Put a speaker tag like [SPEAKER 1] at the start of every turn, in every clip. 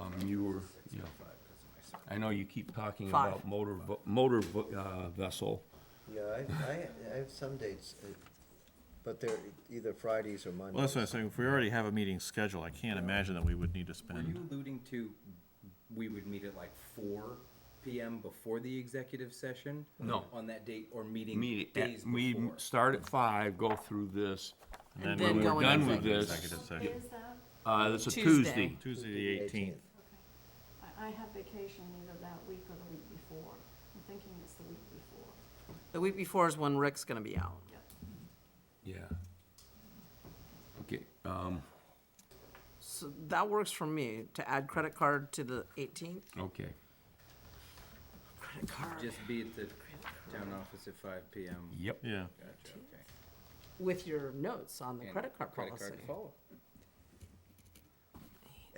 [SPEAKER 1] Um, Yeah. I know you keep talking
[SPEAKER 2] Five.
[SPEAKER 1] about motor, vo- motor vo- uh, vessel.
[SPEAKER 3] Yeah, I, I, I have some dates, uh, but they're either Fridays or Mondays.
[SPEAKER 4] Well, that's what I'm saying, if we already have a meeting scheduled, I can't imagine that we would need to
[SPEAKER 5] Were you
[SPEAKER 4] spend,
[SPEAKER 5] alluding to, we would meet at like four PM before the executive session?
[SPEAKER 1] No.
[SPEAKER 5] On that date, or meeting
[SPEAKER 1] Meet, at-
[SPEAKER 5] days
[SPEAKER 1] we
[SPEAKER 5] before?
[SPEAKER 1] start at five, go through this.
[SPEAKER 2] And
[SPEAKER 4] then
[SPEAKER 2] then
[SPEAKER 1] When
[SPEAKER 2] go
[SPEAKER 1] we're done
[SPEAKER 2] into
[SPEAKER 1] with
[SPEAKER 2] executive.
[SPEAKER 1] this,
[SPEAKER 4] executive session.
[SPEAKER 1] uh, that's a
[SPEAKER 2] Tuesday.
[SPEAKER 1] Tuesday.
[SPEAKER 4] Tuesday the eighteenth.
[SPEAKER 6] I, I have vacation either that week or the week before. I'm thinking it's the week before.
[SPEAKER 2] The week before is when Rick's gonna be out.
[SPEAKER 1] Yeah. Okay, um,
[SPEAKER 2] So that works for me, to add credit card to the eighteenth.
[SPEAKER 1] okay.
[SPEAKER 2] Credit card.
[SPEAKER 5] Just be at the town office at five PM.
[SPEAKER 1] Yep.
[SPEAKER 4] Yeah,
[SPEAKER 5] Gotcha, okay.
[SPEAKER 2] With your notes on the
[SPEAKER 5] And
[SPEAKER 2] credit card
[SPEAKER 5] credit
[SPEAKER 2] policy.
[SPEAKER 5] to follow.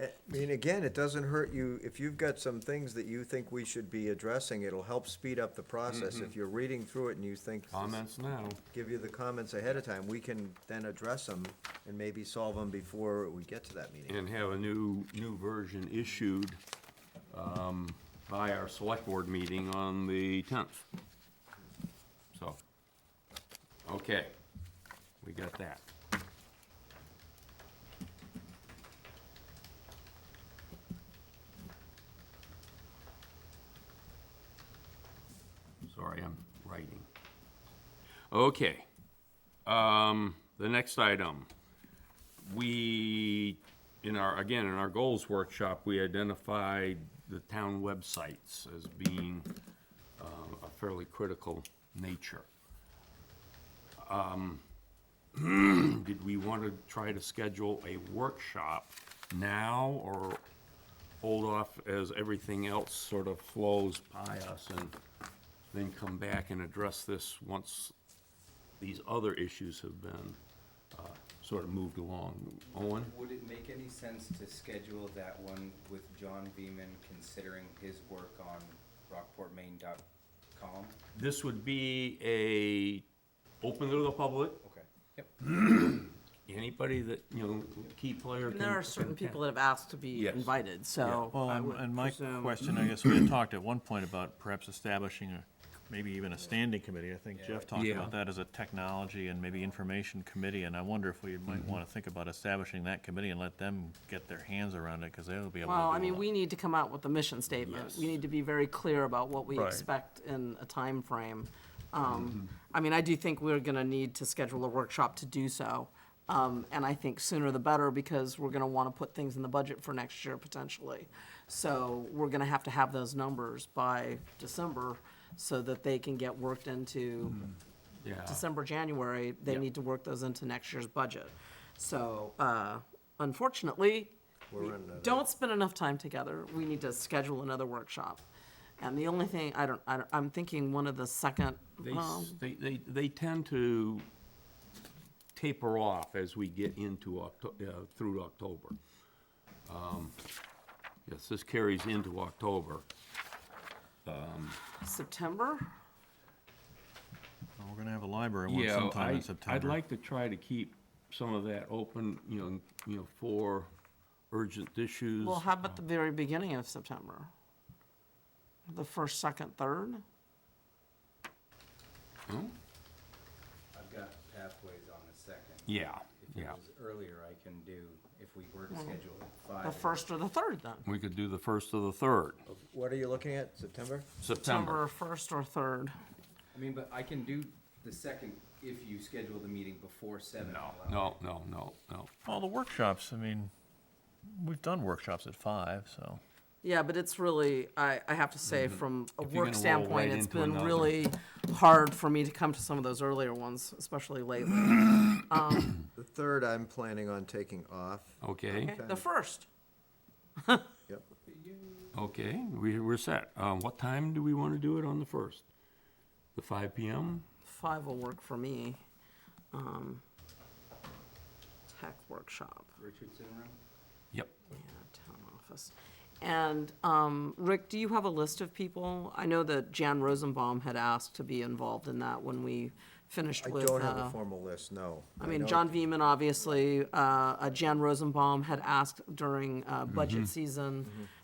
[SPEAKER 3] Uh, I mean, again, it doesn't hurt you, if you've got some things that you think we should be addressing, it'll help speed up the process. If you're reading through it and you think,
[SPEAKER 1] Comments now.
[SPEAKER 3] give you the comments ahead of time, we can then address them and maybe solve them before we get to that meeting.
[SPEAKER 1] and have a new, new version issued um, by our select board meeting on the 10th. So, okay, we got that. Sorry, I'm writing. Okay. Um, The next item we, in our, again, in our goals workshop, we identified the town websites as being uh, a fairly critical nature. Um, Did we want to try to schedule a workshop now or hold off as everything else sort of flows by us and then come back and address this once these other issues have been uh, sort of moved along. Owen?
[SPEAKER 5] Would it make any sense to schedule that one with John Beaman considering his work on rockportmaine.com?
[SPEAKER 1] This would be a, open to the public,
[SPEAKER 5] Okay, yep.
[SPEAKER 1] anybody that, you know, key player can.
[SPEAKER 2] And there are certain people that have asked to be
[SPEAKER 1] Yes.
[SPEAKER 2] invited, so.
[SPEAKER 4] well,
[SPEAKER 2] I
[SPEAKER 4] and-
[SPEAKER 2] would um,
[SPEAKER 4] and my
[SPEAKER 2] presume-
[SPEAKER 4] question, I guess we had talked at one point about perhaps establishing a, maybe even a standing committee, I think Jeff talked
[SPEAKER 1] Yeah.
[SPEAKER 4] about that as a technology and maybe information committee, and I wonder if we
[SPEAKER 1] Mm-hmm.
[SPEAKER 4] might wanna think about establishing that committee and let them get their hands around it, cause they'll be able to do a
[SPEAKER 2] Well, I mean,
[SPEAKER 4] lot.
[SPEAKER 2] we need to come out with a mission statement. We
[SPEAKER 1] Yes.
[SPEAKER 2] need to be very clear about what we
[SPEAKER 4] Right.
[SPEAKER 2] expect in a timeframe. Um, I mean, I do think we're gonna need to schedule a workshop to do so. Um, and I think sooner the better, because we're gonna wanna put things in the budget for next year potentially. So we're gonna have to have those numbers by December, so that they can get worked into
[SPEAKER 1] Yeah.
[SPEAKER 2] December, January, they need to work those into next year's budget. So, uh, unfortunately, we don't spend enough time together. We need to schedule another workshop. And the only thing, I don't, I don't, I'm thinking one of the second, um,
[SPEAKER 1] They,
[SPEAKER 2] well,
[SPEAKER 1] s- they, they, they tend to taper off as we get into Octo, uh, through October. Um, Yes, this carries into October.
[SPEAKER 2] September?
[SPEAKER 4] We're gonna have a library one
[SPEAKER 1] Yeah,
[SPEAKER 4] sometime
[SPEAKER 1] I,
[SPEAKER 4] in September.
[SPEAKER 1] I'd like to try to keep some of that open, you know, you know, for urgent issues.
[SPEAKER 2] Well, how about the very beginning of September? The first, second, third?
[SPEAKER 5] I've got pathways on the second.
[SPEAKER 1] Yeah,
[SPEAKER 5] If it
[SPEAKER 1] yeah.
[SPEAKER 5] was earlier, I can do, if we were to schedule at five.
[SPEAKER 2] Mm. The first or the third then?
[SPEAKER 1] We could do the first or the third,
[SPEAKER 3] What are you looking at, September?
[SPEAKER 1] September.
[SPEAKER 2] First or third?
[SPEAKER 5] I mean, but I can do the second if you schedule the meeting before seven.
[SPEAKER 1] No,
[SPEAKER 5] Allow-
[SPEAKER 1] no, no, no, no.
[SPEAKER 4] Well, the workshops, I mean, we've done workshops at five, so.
[SPEAKER 2] Yeah, but it's really, I, I have to say, from
[SPEAKER 1] Mm-hmm.
[SPEAKER 2] a
[SPEAKER 1] If you're gonna
[SPEAKER 2] work
[SPEAKER 1] roll
[SPEAKER 2] standpoint,
[SPEAKER 1] right
[SPEAKER 2] it's
[SPEAKER 1] into
[SPEAKER 2] been
[SPEAKER 1] another-
[SPEAKER 2] really hard for me to come to some of those earlier ones, especially lately.
[SPEAKER 3] The third, I'm planning on taking off.
[SPEAKER 1] Okay,
[SPEAKER 2] Okay, The first,
[SPEAKER 3] Yep.
[SPEAKER 1] okay, we, we're set. Um, what time do we want to do it on the first? The five PM?
[SPEAKER 2] five will work for me. Um, Tech workshop,
[SPEAKER 5] Richardson Room?
[SPEAKER 1] Yep.
[SPEAKER 2] yeah, town office. And, um, Rick, do you have a list of people? I know that Jan Rosenbaum had asked to be involved in that when we finished
[SPEAKER 3] I
[SPEAKER 2] with,
[SPEAKER 3] don't have
[SPEAKER 2] uh,
[SPEAKER 3] a formal list, no.
[SPEAKER 2] I mean,
[SPEAKER 3] know-
[SPEAKER 2] John Veman, obviously, uh, uh, Jan Rosenbaum had asked during uh, budget season